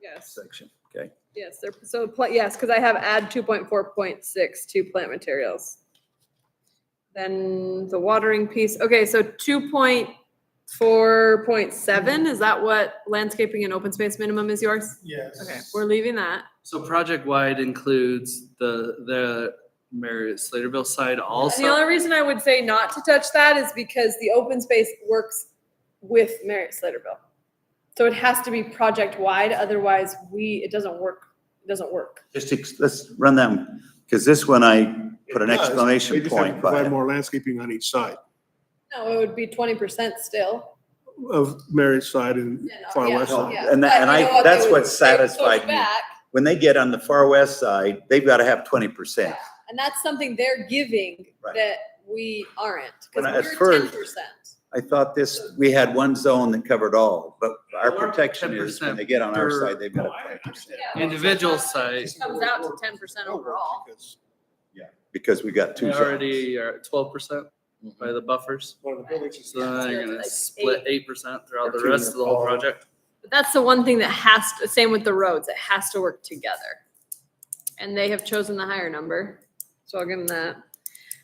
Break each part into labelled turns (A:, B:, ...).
A: Yes,
B: section, okay?
A: yes, they're, so, pla- yes, because I have add two point four point six to plant materials. Then the watering piece, okay, so two point four point seven, is that what landscaping and open space minimum is yours?
C: Yes.
A: Okay, we're leaving that.
D: So project wide includes the, the Mary Slaterville side
A: And the only
D: also.
A: reason I would say not to touch that is because the open space works with Marriott Sladeville. So it has to be project wide, otherwise we, it doesn't work, it doesn't work.
B: Just, ex- let's run them, because this one I put an
C: It does. They
B: exclamation
C: just have to
B: point by
C: Provide
B: it.
C: more landscaping on each side
A: No, it would be twenty percent still.
C: of Mary's side and
A: Yeah,
C: far
A: yeah,
C: west side.
A: yeah.
B: And that-
A: But
B: and
A: you
B: I-
A: know what,
B: that's
A: they would-
B: what
A: they would push
B: satisfied me.
A: back,
B: When they get on the far west side, they've got to have twenty percent.
A: And that's something they're giving
B: Right.
A: that we aren't,
B: When I- at
A: because we're ten
B: first-
A: percent.
B: I thought this, we had one zone that covered all, but our
D: Well, our
B: protection is when they get on our
D: 10%
B: side, they've got
C: No, I
B: twenty percent.
D: Individual side,
A: Comes out to ten percent overall.
C: Because
B: Because we got two Mm-hmm.
D: we
B: zones.
D: already are at twelve percent by the buffers.
C: One of the buildings is
D: So then
A: Yeah,
D: you're
A: so
D: gonna
A: it's like
D: split eight percent throughout the
C: Or two
D: rest of the whole
C: all-
D: project.
A: But that's the one thing that has to, same with the roads, it has to work together. And they have chosen the higher number, so I'll give them that.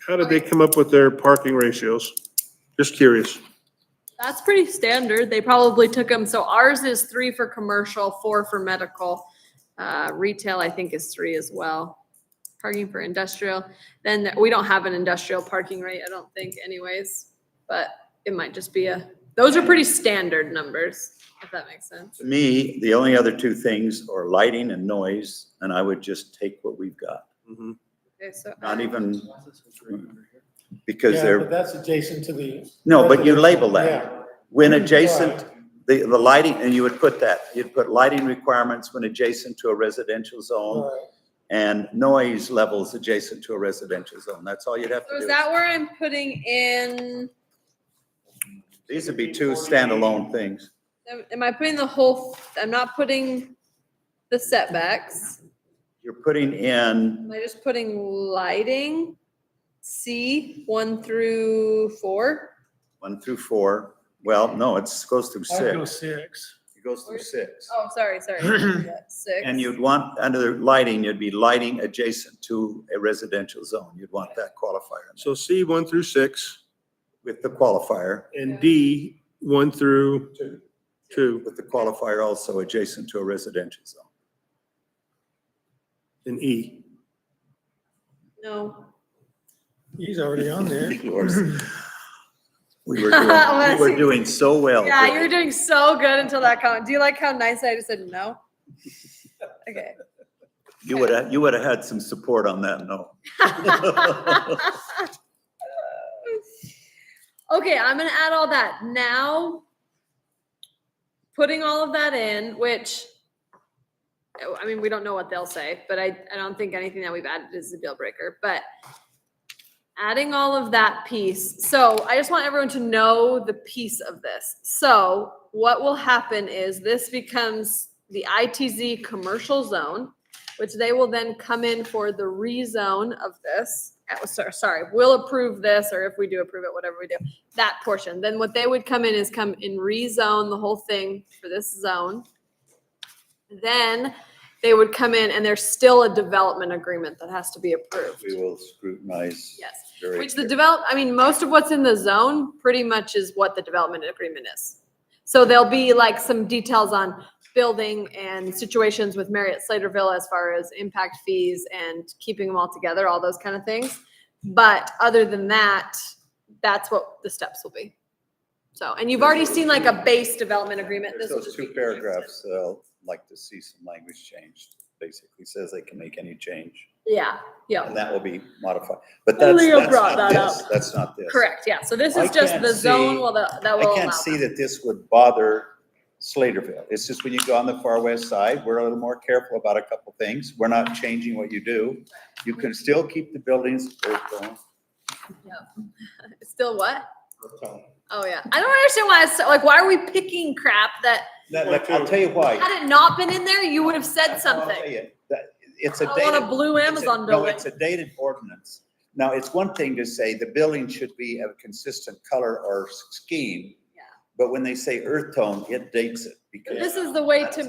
C: How did they come up with their parking ratios? Just curious.
A: That's pretty standard. They probably took them, so ours is three for commercial, four for medical. Uh, retail, I think, is three as well. Parking for industrial, then th- we don't have an industrial parking rate, I don't think anyways, but it might just be a, those are pretty standard numbers, if that makes sense.
B: To me, the only other two things are lighting and noise, and I would just take what we've got.
A: Okay, so.
B: Not even,
D: Well,
B: because
E: Yeah, but
B: they're,
E: That's adjacent to the.
B: no, but you label that.
E: Yeah.
B: When adjacent,
E: Right.
B: the, the lighting, and you would put that, you'd put lighting requirements when adjacent to a residential zone
E: Right.
B: and noise levels adjacent to a residential zone. That's all you'd have
A: So
B: to
A: is
B: do.
A: that where I'm putting in,
B: These would be two standalone things.
A: am- am I putting the whole, I'm not putting the setbacks,
B: You're putting in
A: am I just putting lighting? C, one through four?
B: one through four. Well, no, it's, goes through
E: I'd go
B: six.
E: six.
B: It goes through six.
A: Oh, sorry, sorry. Yeah, Six.
B: And you'd want, under lighting, you'd be lighting adjacent to a residential zone. You'd want that qualifier in there.
C: So C one through six
B: with the qualifier,
C: and D one through two
B: with the qualifier also adjacent to a residential zone.
C: and E.
A: No.
E: He's already on there.
B: We were doing, we were doing so well.
A: Yeah, you were doing so good until that comment. Do you like how nice I just said no? Okay.
B: You would have, you would have had some support on that, no.
A: Okay, I'm gonna add all that. Now, putting all of that in, which, oh, I mean, we don't know what they'll say, but I, I don't think anything that we've added is a deal breaker, but adding all of that piece. So I just want everyone to know the piece of this. So what will happen is this becomes the ITZ commercial zone, which they will then come in for the rezone of this. uh, so- Sorry, we'll approve this, or if we do approve it, whatever we do, that portion. Then what they would come in is come and rezone the whole thing for this zone. Then they would come in and there's still a development agreement that has to be approved.
B: We will scrutinize.
A: Yes.
B: very
A: Which the develop, I mean, most of what's in the zone pretty much is what the development agreement is. So there'll be like some details on building and situations with Marriott Slaterville as far as impact fees and keeping them all together, all those kind of things. But other than that, that's what the steps will be. So, and you've already seen like a base development agreement.
B: There's
A: This will
B: those
A: just
B: two
A: be-
B: paragraphs that I'll like to see some language changed. Basically says they can make any change
A: Yeah, yeah,
B: and that will be modified. But that's,
A: Leo
B: that's
A: brought
B: not
A: that
B: this. That's not this.
A: correct, yeah. So this
B: I
A: is just
B: can't
A: the zone
B: see-
A: will, the- that
B: I
A: will allow.
B: can't see that this would bother Slaterville. It's just when you go on the far west side, we're a little more careful about a couple things. We're not changing what you do. You can still keep the buildings.
A: that. Still what? Oh yeah, I don't understand why. It's, like, why are we picking crap that
B: That- that- I'll tell you why.
A: had it not been in there, you would have said
B: I'll tell
A: something.
B: you, that- It's
A: I
B: a
A: want a
B: dated.
A: blue
B: it's a-
A: Amazon
B: No,
A: building.
B: it's a dated ordinance. Now, it's one thing to say the building should be of consistent color or scheme.
A: Yeah.
B: But when they say earth tone, it dates it because.
A: This is the way to